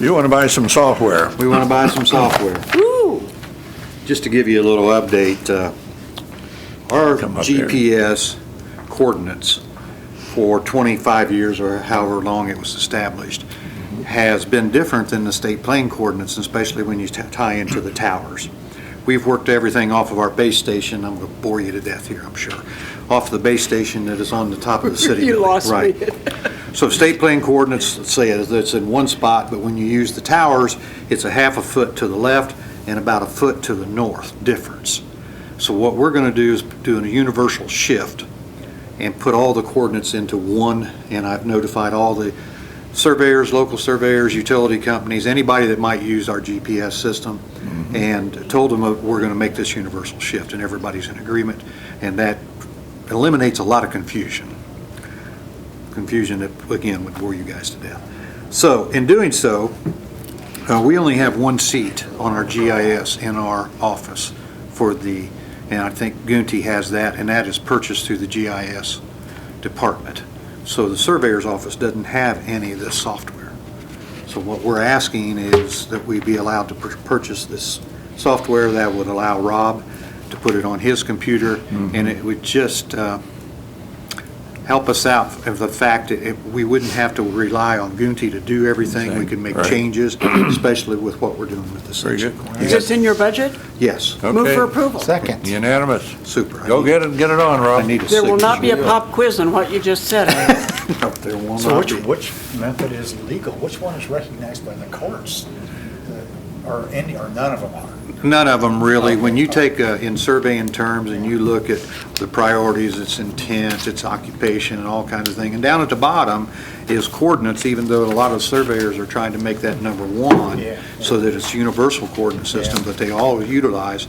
You want to buy some software? We want to buy some software. Woo! Just to give you a little update, uh, our Come up here. GPS coordinates for 25 years or however long it was established has been different than the state plane coordinates, especially when you t- tie into the towers. We've worked everything off of our base station, I'm going to bore you to death here, I'm sure, off the base station that is on the top of the city. You building. lost me. Right. So state plane coordinates, let's say that it's in one spot, but when you use the towers, it's a half a foot to the left and about a foot to the north difference. So what we're going to do is do a universal shift and put all the coordinates into one, and I've notified all the surveyors, local surveyors, utility companies, anybody that might use our GPS system, and told them that we're going to make this universal shift, and everybody's in agreement, and that eliminates a lot of confusion confusion that, again, would bore you guys to death. So, in doing so, uh, we only have one seat on our GIS in our office for the, and I think Gunty has that, and that is purchased through the GIS department. So the surveyor's office doesn't have any of this software. So what we're asking is that we be allowed to pur- purchase this software that would allow Rob to put it on his computer, Mm-hmm. and it would just, uh, help us out of the fact that it- we wouldn't have to rely on Gunty to do everything. We could make Right. changes, especially with what we're doing with the Very section. good. Is this in your budget? Yes, Move Okay. for approval. Second. Unanimous. super. I Go need- get it, get it on, I Rob. need a There will not be a signature. pop quiz on what you just said. Ed. No, There will So not which, be. which method is legal? Which one is recognized by the courts? Uh, Or any, or none of them are? None of them really. When you take, uh, in surveying terms, and you look at the priorities, its intent, its occupation, and all kinds of things, and down at the bottom is coordinates, even though a lot of surveyors are trying to make that number one, Yeah. so that it's universal coordinate system that they all utilize.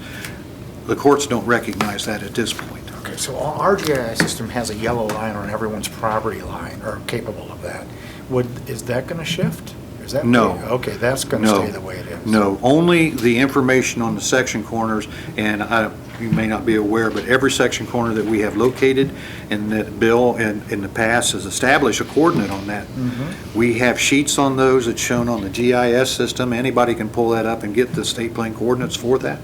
The courts don't recognize that at this point. Okay, so our our GIS system has a yellow line on everyone's property line, or capable of that. Would, is that going to shift? Is that? No. Okay, that's going to No. stay the way it is. No, only the information on the section corners, and I, you may not be aware, but every section corner that we have located, and that Bill in, in the past has established a coordinate on that. Mm-hmm. We have sheets on those that's shown on the GIS system, anybody can pull that up and get the state plane coordinates for that,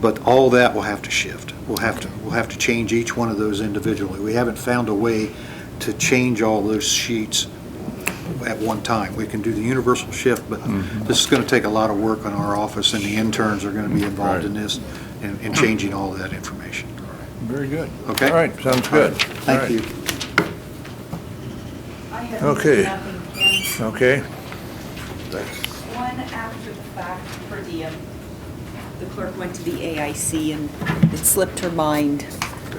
but all that will have to shift. We'll have to, we'll have to change each one of those individually. We haven't found a way to change all those sheets at one time. We can do the universal shift, but Mm-hmm. this is going to take a lot of work on our office, and the interns are going to be involved in this and and changing all of that information. Very good. Okay. All right, sounds good. All Thank right. you. I have Okay. nothing in Okay, one after the fact per diem. The clerk went to the AIC and it slipped her mind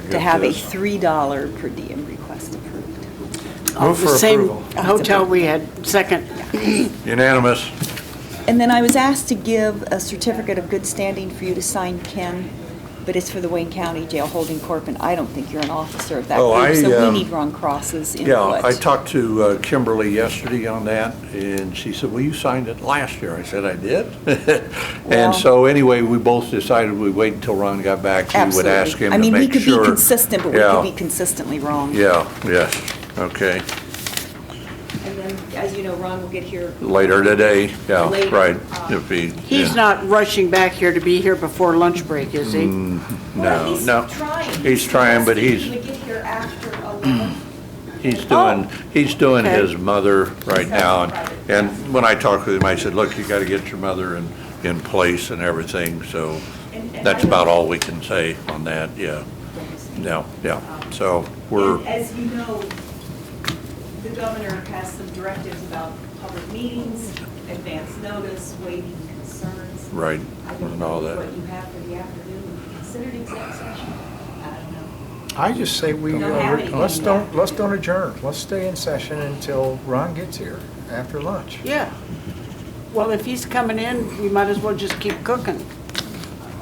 to have a $3 per diem request approved. Of the for same approval. hotel we had second. unanimous. And then I was asked to give a certificate of good standing for you to sign, Ken, but it's for the Wayne County Jail Holding Corp. And I don't think you're an officer of that Oh, I, group, so um, we need wrong crosses in Yeah, what. I talked to uh, Kimberly yesterday on that, and she said, well, you signed it last year. I said, I did. Well- And so anyway, we both decided we'd wait until Ron got back. We would Absolutely. ask him to I mean, we make could be sure. consistent, but we Yeah. could be consistently wrong. Yeah, yes, okay, And then, as you know, Ron will get here. later today, yeah, Later, right. uh, If he, He's yeah. not rushing back here to be here before lunch break, is Mm-hmm. he? Well, No, he's no. trying. He's trying, but he's- Mm-hmm. He would get here after 11. He's doing, he's doing Okay. his mother right now, and, and when I talked with him, I said, look, you gotta get your mother in, in place and everything, so And- and that's I- about all we can say on that, yeah, no, yeah, so we're, And As you know, the governor has some directives about public meetings, advance notice, waiving concerns. right, I don't and know all that. what you have for the afternoon, would you consider an exec session? I don't know. I just say we, Don't uh, have anything let's yet. don't, let's don't adjourn. Let's stay in session until Ron gets here after lunch. Yeah. Well, if he's coming in, we might as well just keep cooking.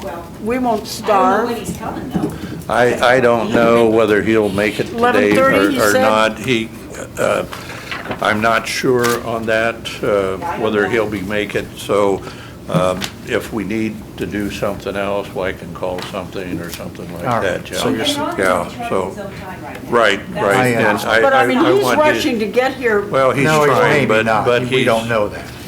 Well, We won't I don't know when starve. he's coming, though. I, I don't know whether he'll make it today 11:30, he or- or said? not. He, uh, I'm not sure on that, uh, Yeah, I don't whether know. he'll be make it, so um, if we need to do something else, well, I can call something or something like All right, that, yeah. so you're s- And Ron's Yeah, controlling his so, own time right now. right, That's- right. I, uh, and But I mean, he's want his- rushing to get here Well, he's No, trying, maybe but, not. but he's. We don't know that.